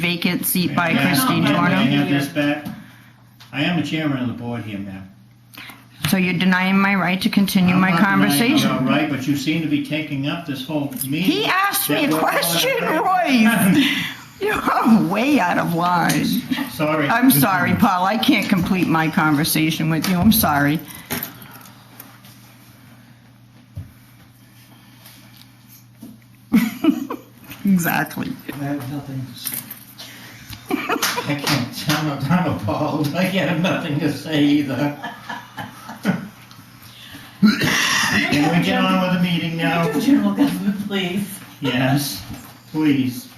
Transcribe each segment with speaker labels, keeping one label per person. Speaker 1: vacant seat by
Speaker 2: May I-
Speaker 1: Christine
Speaker 2: may I
Speaker 1: Torno.
Speaker 2: have this back? I am the chairman of the board here, ma'am.
Speaker 1: So you're denying my right to continue
Speaker 2: I'm
Speaker 1: my
Speaker 2: not denying
Speaker 1: conversation.
Speaker 2: you're All right, but you seem to be taking up this whole meeting.
Speaker 1: He asked me
Speaker 2: that
Speaker 1: a
Speaker 2: we're going
Speaker 1: question,
Speaker 2: to-
Speaker 1: Royce. You're way out of line.
Speaker 2: Sorry.
Speaker 1: I'm sorry, Paul, I can't complete my conversation with you, I'm sorry. Exactly.
Speaker 2: I have nothing to say. I can't, I'm, I'm appalled. I have nothing to say either. Can we get on with the meeting now?
Speaker 3: Do general government, please.
Speaker 2: Yes, please.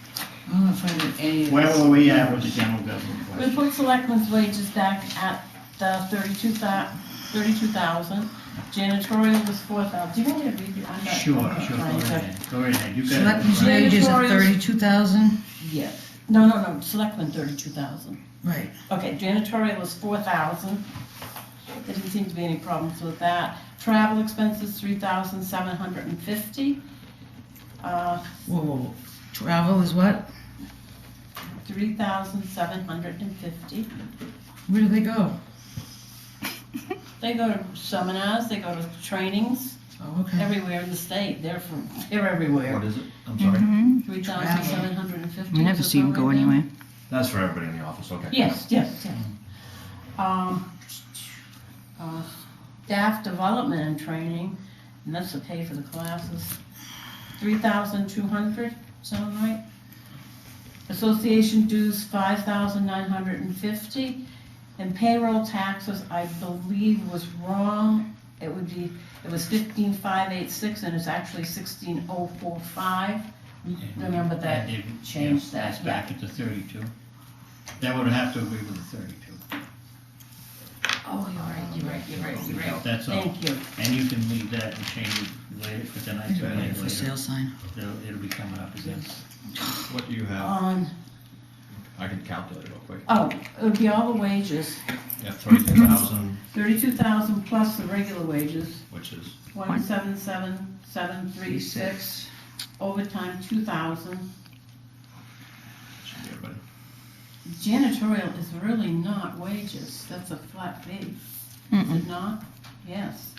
Speaker 3: I'm not finding any of
Speaker 2: Where
Speaker 3: this.
Speaker 2: were we at with the general government question?
Speaker 3: We put selectmen's wages back at the thirty-two thou, thirty-two thousand, janitorial was four thousand, do you want me to read you? I'm not-
Speaker 2: Sure,
Speaker 3: I'm
Speaker 2: sure, go
Speaker 3: not
Speaker 2: right
Speaker 3: trying to-
Speaker 2: ahead, go right ahead, you got
Speaker 4: Selectmen's
Speaker 2: it. right.
Speaker 4: wages of
Speaker 3: Mandatories.
Speaker 4: thirty-two thousand?
Speaker 3: Yes, no, no, no, selectmen thirty-two thousand,
Speaker 4: Right.
Speaker 3: okay, janitorial was four thousand, there didn't seem to be any problems with that. Travel expenses, three thousand seven hundred and fifty, uh,
Speaker 4: Whoa, whoa, whoa. Travel is what?
Speaker 3: three thousand seven hundred and fifty.
Speaker 4: Where do they go?
Speaker 3: They go to seminars, they go to trainings,
Speaker 4: Oh,
Speaker 1: Mm-hmm.
Speaker 4: okay.
Speaker 3: everywhere in the state, they're from, they're everywhere.
Speaker 5: What is it? I'm sorry.
Speaker 1: Mm-hmm.
Speaker 3: Three thousand seven hundred and fifty.
Speaker 1: We never see him go anywhere.
Speaker 5: That's for everybody in the office, okay.
Speaker 3: Yes, yes, yes. Um, uh, staff development and training, and that's to pay for the classes, three thousand two hundred, sound right? Association dues, five thousand nine hundred and fifty, and payroll taxes, I believe was wrong. It would be, it was fifteen five eight six, and it's actually sixteen oh four five. Remember that,
Speaker 2: It-
Speaker 3: change
Speaker 2: yes,
Speaker 3: that,
Speaker 2: That's back at the thirty-two. That would have to agree with the thirty-two.
Speaker 3: oh, you're right, you're right, you're right, you're right.
Speaker 2: That's all.
Speaker 3: Thank you.
Speaker 2: And you can leave that and change it later, for tonight's or
Speaker 4: Waiting For
Speaker 2: later.
Speaker 4: sale sign.
Speaker 2: It'll, it'll be coming up again.
Speaker 5: What do you have?
Speaker 3: On,
Speaker 5: I can calculate real quick.
Speaker 3: Um, oh, it would be all the wages,
Speaker 5: Yeah, thirty-two thousand,
Speaker 3: thirty-two thousand plus the regular wages,
Speaker 5: which is,
Speaker 3: one seven seven, seven three six, overtime two thousand.
Speaker 5: should be everybody.
Speaker 3: Janitorial is really not wages, that's a flat fee, is
Speaker 1: Mm-mm.
Speaker 3: it not? Yes.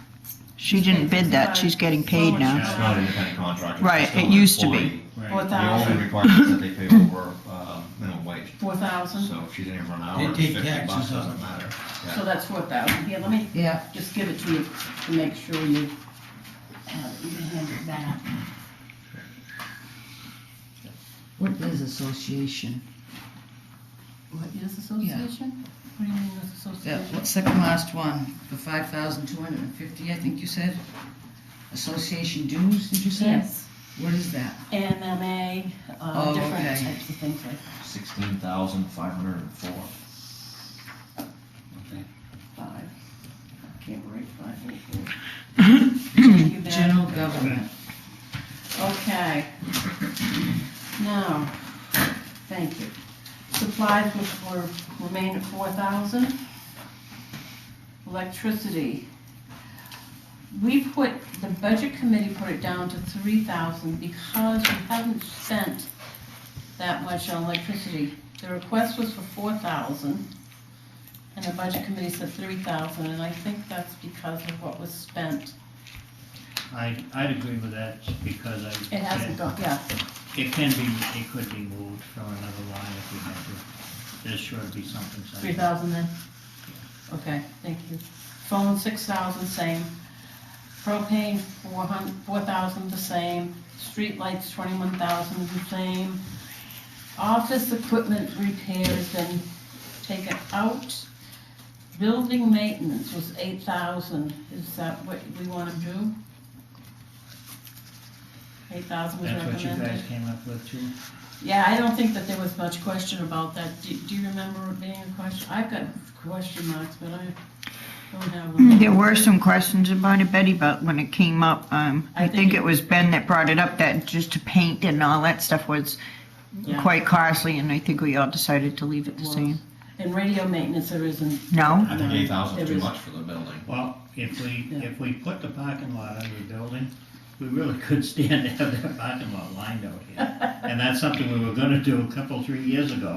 Speaker 1: She didn't bid that, she's getting paid now.
Speaker 5: It's not an independent contractor.
Speaker 1: Right,
Speaker 5: it's still
Speaker 1: it
Speaker 5: an
Speaker 1: used to be.
Speaker 5: employee.
Speaker 3: Four
Speaker 2: Right.
Speaker 5: The only
Speaker 3: thousand,
Speaker 5: requirement is that they pay over, uh, minimum wage,
Speaker 3: four thousand,
Speaker 5: so if she didn't even run
Speaker 2: They
Speaker 5: hours,
Speaker 2: take
Speaker 5: fifty bucks
Speaker 2: taxes on
Speaker 5: doesn't
Speaker 2: it.
Speaker 5: matter.
Speaker 3: so that's four thousand, here, let me
Speaker 4: Yeah.
Speaker 3: just give it to you to make sure you, uh, you handle that.
Speaker 4: What is association?
Speaker 3: What is association? What do you mean with
Speaker 4: Yeah,
Speaker 3: association?
Speaker 4: what, second last one, for five thousand two hundred and fifty, I think you said? Association dues, did you say?
Speaker 3: Yes,
Speaker 4: What is that?
Speaker 3: MMA, uh,
Speaker 4: Oh,
Speaker 3: different
Speaker 4: okay.
Speaker 3: types of things like
Speaker 5: Sixteen thousand five hundred and four.
Speaker 3: five, I can't write five or four.
Speaker 4: General government.
Speaker 3: Okay. Now, thank you. Supplies which were, remained at four thousand. Electricity. We put, the budget committee put it down to three thousand because we haven't spent that much on electricity. The request was for four thousand, and the budget committee said three thousand, and I think that's because of what was spent.
Speaker 2: I, I'd agree with that because I.
Speaker 3: It hasn't gone, yeah,
Speaker 2: It can be, it could be moved from another line if we had to. There's sure to be something. something.
Speaker 3: Three thousand then? Okay, thank you. Phone, six thousand, same. Propane, four hun, four thousand, the same. Streetlights, twenty-one thousand, the same. Office equipment repairs, then take it out. Building maintenance was eight thousand, is that what we wanna do? Eight thousand was
Speaker 2: That's what you
Speaker 3: recommended.
Speaker 2: guys came up with too?
Speaker 3: Yeah, I don't think that there was much question about that. Do, do you remember it being a question? I've got question marks, but I don't have them.
Speaker 1: There were some questions about it, Betty, but when it came up, um,
Speaker 3: I
Speaker 1: I
Speaker 3: think
Speaker 1: think it was Ben that brought it up, that just to paint and all that stuff was
Speaker 3: Yeah.
Speaker 1: quite costly, and I think we all decided to leave it the
Speaker 3: Well,
Speaker 1: same.
Speaker 3: And radio maintenance, there isn't.
Speaker 1: No?
Speaker 5: I think
Speaker 3: No,
Speaker 5: eight thousand
Speaker 3: there
Speaker 5: is too
Speaker 3: is-
Speaker 5: much for the building.
Speaker 2: Well, if we,
Speaker 3: Yeah.
Speaker 2: if we put the parking lot under the building, we really could stand to have that parking lot lined out here. And that's something we were gonna do a couple, three years ago.